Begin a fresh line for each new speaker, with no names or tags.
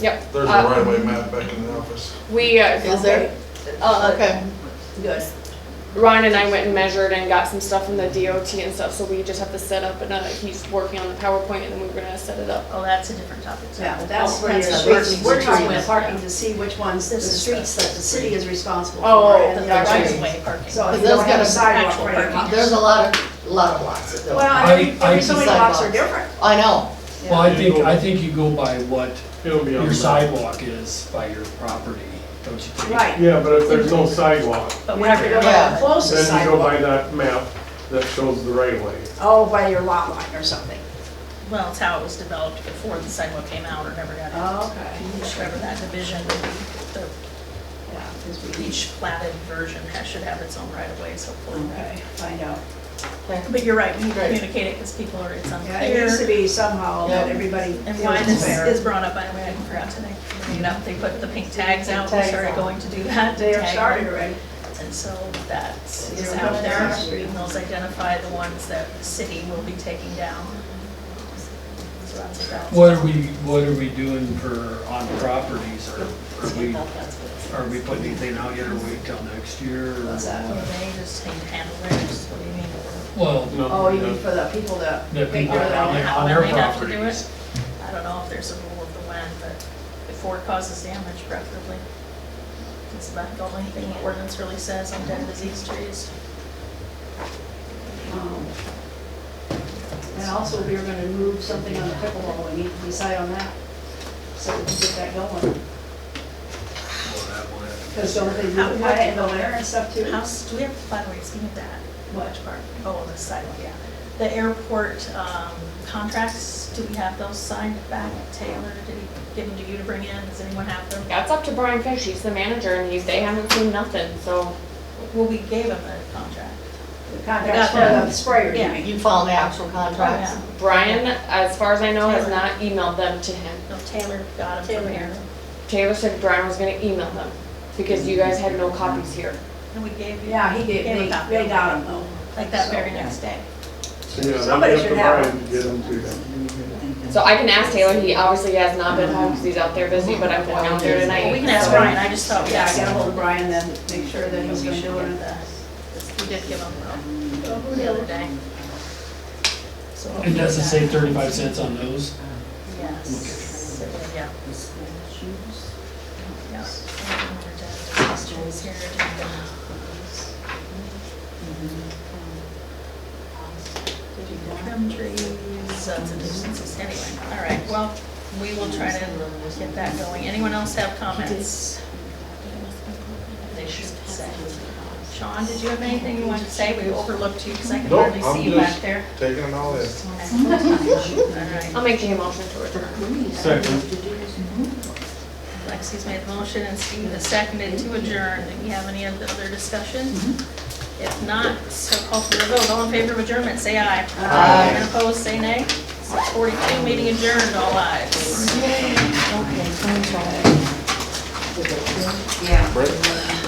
Yep.
There's a
Uh,
right away map back in the office.
We, uh,
Is there? Oh, okay, good.
Ryan and I went and measured and got some stuff from the DOT and stuff, so we just have to set up another, he's working on the PowerPoint and then we're gonna set it up.
Oh, that's a different topic. sorry.
Yeah, but that's where your
That's the
streets,
parking
we're talking about
situation.
parking to see which ones, the
This is
streets that the city is responsible
Oh,
for and
The
the other
right
ones.
of way parking.
So if
But
you don't
those
have a
gotta be
sidewalk
actual
right
parking.
across-
There's a lot of, lot of lots that
Well,
don't.
I mean,
I-
every so many blocks are different.
I know,
Well, I think, I think you go by what
It'll be on
your
the
sidewalk is by your property, don't you think?
Right, you
Yeah, but if there's no sidewalk,
have
But
to
whenever
go
you're
by
Yeah.
the closest
then you go by
sidewalk,
that map that shows the right way.
oh, by your lot line or something.
Well, it's how it was developed before the sidewalk came out or never got in.
Okay.
Whatever that division, the
Yeah, because we
each platted version has, should have its own right of ways hopefully.
Okay, find out.
But you're right, we need to
Right.
communicate it because people are, it's
Yeah, it needs to
unclear.
be somehow that
Yeah.
everybody
And
feels
why
it's
this is
fair.
brought up, by the way, I forgot today. You know, they put the pink tags out, we
Tags
started
out.
going to do that.
They are
tag
started
them.
already.
And so that is
Zero
out there,
tolerance.
and those identify the ones that the city will be taking down. So that's what that's.
What are we, what are we doing for, on properties, or are we,
Well, that's what it's-
are we putting anything out yet, or wait till next year? or
What's that?
Well,
what?
They just need to handle theirs, what do you mean?
Well,
No,
Oh, you
no.
mean for the people that.
the
Figure
people
it
that are
out
on their-
how
on
when
their
they have to do it.
properties.
I don't know if there's a rule of the when, but before it causes damage preferably. That's about the only thing the ordinance really says on dead disease trees.
um, And also, we are gonna move something on the pickleball, we need to decide on that, so we can get that going.
Well, that will have to-
Because don't they do
How-
the
what-
kayak there and stuff too?
House, do we have, by the way, speaking of that,
What?
Which part? Oh, the sidewalk, yeah. The airport um, contracts, do we have those signed back? Taylor, did he give them to you to bring in? Does anyone have them?
That's up to Brian Fish, he's the manager and he's, they haven't seen nothing, so.
Well, we gave him the contract.
The contracts for
Yeah.
the sprayer, you
Yeah.
mean?
you follow the actual contracts.
Yeah.
Brian, as far as I know, has
Taylor.
not emailed them to him.
No, Taylor got them from here.
Taylor said Brian was gonna email them because you guys had no copies here.
And we gave you,
Yeah, he did,
Gave
they,
a copy.
they got them though.
like that very next day.
Yeah, they
Somebody
have to
should have
Brian to Get them to them.
So I can ask Taylor, he obviously has not been home because he's out there busy, but I'm going out there tonight.
Well, we can ask Brian, I just thought,
Yeah,
yeah,
I got ahold of Brian then, make sure that he's gonna do it.
We did give him the, the other day. So
It doesn't say thirty-five cents on those?
Yes, yeah. Yeah. Questions here. Did you trim trees? That's a nuisance, anyway, all right, well, we will try to get that going. Anyone else have comments? They should say. Sean, did you have anything you wanted to say? We overlooked you because I could
Nope,
hardly
I'm
see you
just-
back there.
Taking them all in.
All right.
I'll make a motion to adjourn.
Second,
Lexi's made the motion and Steve has seconded to adjourn. Do we have any other discussion? If not, so call for the vote. All in favor of adjournment, say aye.
Aye.
And opposed, say nay. 6:42, meeting adjourned, all ayes.
Brett?